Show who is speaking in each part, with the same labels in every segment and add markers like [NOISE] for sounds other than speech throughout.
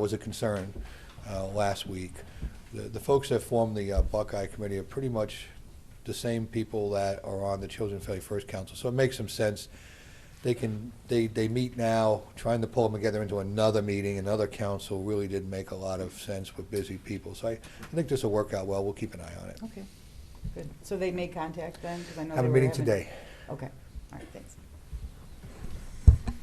Speaker 1: was a concern uh, last week. The the folks that form the uh, Buckeye Committee are pretty much the same people that are on the Children Family First Council, so it makes some sense. They can, they, they meet now, trying to pull them together into another meeting, another council really didn't make a lot of sense with busy people. So I, I think this will work out well, we'll keep an eye on it.
Speaker 2: Okay, good. So they made contact then? 'Cause I know
Speaker 1: Have a
Speaker 2: they were
Speaker 1: meeting
Speaker 2: having-
Speaker 1: today.
Speaker 2: Okay, all right, thanks.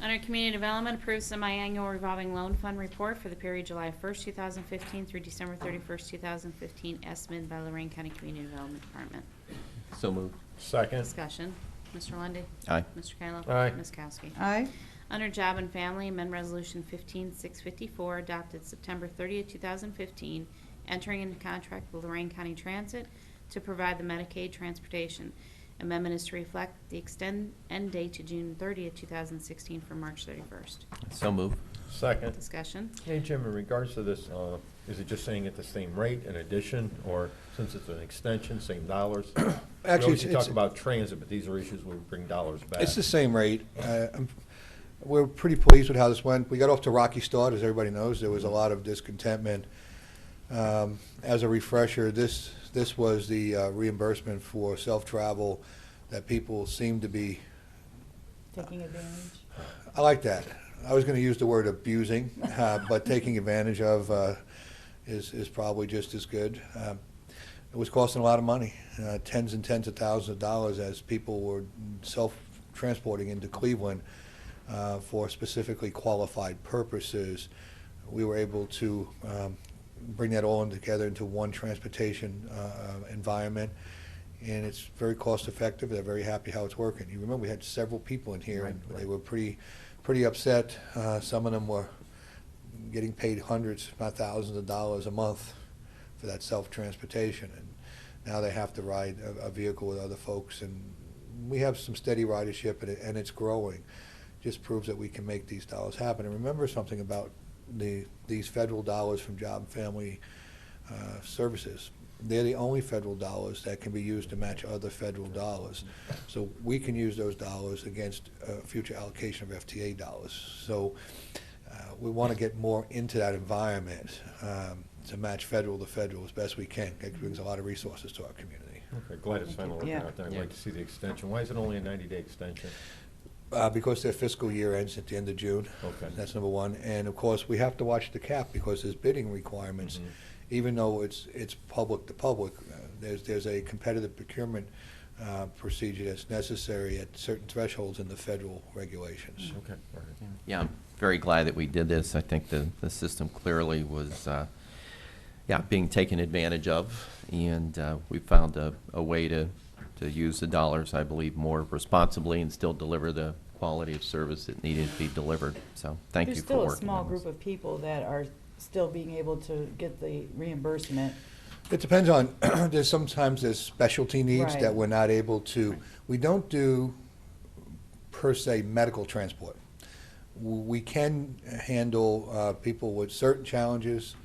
Speaker 3: Under Community Development, approves semi-annual revolving loan fund report for the period July 1st, 2015 through December 31st, 2015, estimated by Lorraine County Community Development Department.
Speaker 4: So moved.
Speaker 5: Second.
Speaker 3: Discussion. Mr. Lundy.
Speaker 4: Aye.
Speaker 3: Mr. Kayla.
Speaker 5: Aye.
Speaker 3: Ms. Kowski.
Speaker 2: Aye,
Speaker 3: Under Job and Family, amend Resolution 15654, adopted September 30th, 2015, entering into contract with Lorraine County Transit to provide the Medicaid transportation. Amendment is to reflect the extend end date to June 30th, 2016 from March 31st.
Speaker 4: So moved.
Speaker 5: Second.
Speaker 3: Discussion.
Speaker 5: Hey, Jim, in regards to this, uh, is it just saying at the same rate, in addition, or since it's an extension, same dollars? We
Speaker 1: Actually,
Speaker 5: always
Speaker 1: it's-
Speaker 5: talk
Speaker 1: it's-
Speaker 5: about transit, but these are issues where we bring dollars back.
Speaker 1: It's the same rate. Uh, I'm- We're pretty pleased with how this went. We got off to a rocky start, as everybody knows. There was a lot of discontentment. Um, As a refresher, this, this was the uh, reimbursement for self-travel that people seem to be,
Speaker 2: taking advantage.
Speaker 1: I like that. I was going to use the word abusing, uh, but taking advantage of uh, is, is probably just as good. Um, It was costing a lot of money, uh, tens and tens of thousands of dollars as people were self-transporting into Cleveland uh, for specifically qualified purposes. We were able to um, bring that all in together into one transportation uh, uh, environment, and it's very cost-effective. They're very happy how it's working. You remember, we had several people in here, and they were pretty, pretty upset. Uh, Some of them were getting paid hundreds, if not thousands of dollars a month for that self-transportation. And now they have to ride a, a vehicle with other folks. And we have some steady ridership and, it, and it's growing. Just proves that we can make these dollars happen. And remember something about the, these federal dollars from Job and Family uh, Services. They're the only federal dollars that can be used to match other federal dollars. So we can use those dollars against uh, future allocation of FTA dollars. So uh, we want to get more into that environment um, to match federal to federal as best we can. It brings a lot of resources to our community.
Speaker 5: Okay, Glad it's finally working
Speaker 2: Yeah.
Speaker 5: out there. I'd like to see the extension. Why is it only a ninety-day extension?
Speaker 1: Uh, Because their fiscal year ends at the end of June.
Speaker 5: Okay.
Speaker 1: That's number one. And of course, we have to watch the cap because there's bidding requirements. Even though it's, it's public to public, uh, there's, there's a competitive procurement uh, procedure that's necessary at certain thresholds in the federal regulations.
Speaker 5: Okay, all right.
Speaker 4: Yeah, I'm very glad that we did this. I think the, the system clearly was, uh, yeah, being taken advantage of. And uh, we found a, a way to, to use the dollars, I believe, more responsibly and still deliver the quality of service that needed to be delivered. So thank you
Speaker 2: There's
Speaker 4: for
Speaker 2: still
Speaker 4: working on
Speaker 2: a small
Speaker 4: this.
Speaker 2: group of people that are still being able to get the reimbursement.
Speaker 1: It depends on, [CLEARS THROAT] there's sometimes there's specialty needs
Speaker 2: Right.
Speaker 1: that we're not able to, we don't do per se medical transport. W- We can handle uh, people with certain challenges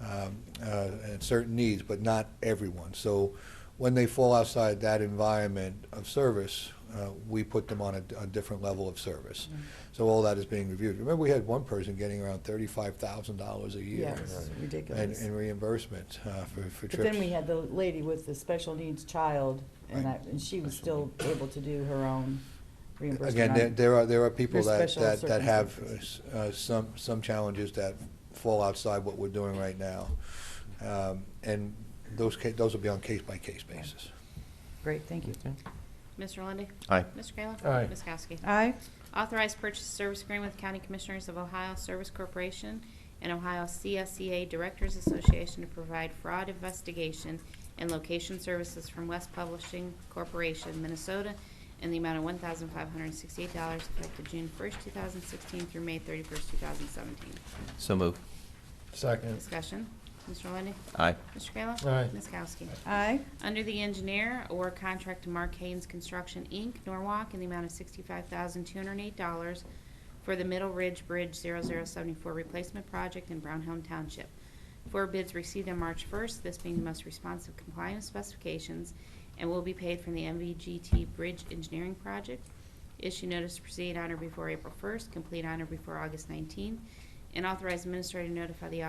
Speaker 1: um, uh, and certain needs, but not everyone. So when they fall outside that environment of service, uh, we put them on a, a different level of service.
Speaker 2: Mm-hmm.
Speaker 1: So all that is being reviewed. Remember, we had one person getting around thirty-five thousand dollars a year.
Speaker 2: Yeah, it's
Speaker 1: And,
Speaker 2: ridiculous.
Speaker 1: and reimbursement uh, for, for trips.
Speaker 2: But then we had the lady with the special needs child, and
Speaker 1: Right.
Speaker 2: that, and she was still able to do her own reimbursement.
Speaker 1: Again, there,
Speaker 2: on-
Speaker 1: there are, there are people
Speaker 2: There's
Speaker 1: that,
Speaker 2: special
Speaker 1: that, that have uh,
Speaker 2: circumstances.
Speaker 1: s- uh, some, some challenges that fall outside what we're doing right now. Um, And those, ca- those will be on case-by-case basis.
Speaker 2: Great, thank you.
Speaker 4: Okay.
Speaker 3: Mr. Lundy.
Speaker 4: Aye.
Speaker 3: Mr. Kayla?
Speaker 5: Aye.
Speaker 3: Ms. Kowski?
Speaker 2: Aye,
Speaker 3: Authorized purchase service agreement with County Commissioners of Ohio Service Corporation and Ohio CSEA Directors Association to provide fraud investigation and location services from West Publishing Corporation, Minnesota, in the amount of $1,568 effective June 1st, 2016 through May 31st, 2017.
Speaker 4: So moved.
Speaker 5: Second.
Speaker 3: Discussion. Mr. Lundy.
Speaker 4: Aye.
Speaker 3: Mr. Kayla?
Speaker 5: Aye.
Speaker 3: Ms. Kowski?
Speaker 2: aye,
Speaker 3: Under the engineer, award contract to Mark Haynes Construction, Inc., Norwalk, in the amount of $65,208 for the Middle Ridge Bridge 0074 replacement project in Brownhelm Township. Four bids received on March 1st, this being the most responsive complying with specifications, and will be paid from the MVGT Bridge Engineering Project. Issue notice to proceed on or before April 1st, complete on or before August 19th, and authorize administrator to notify the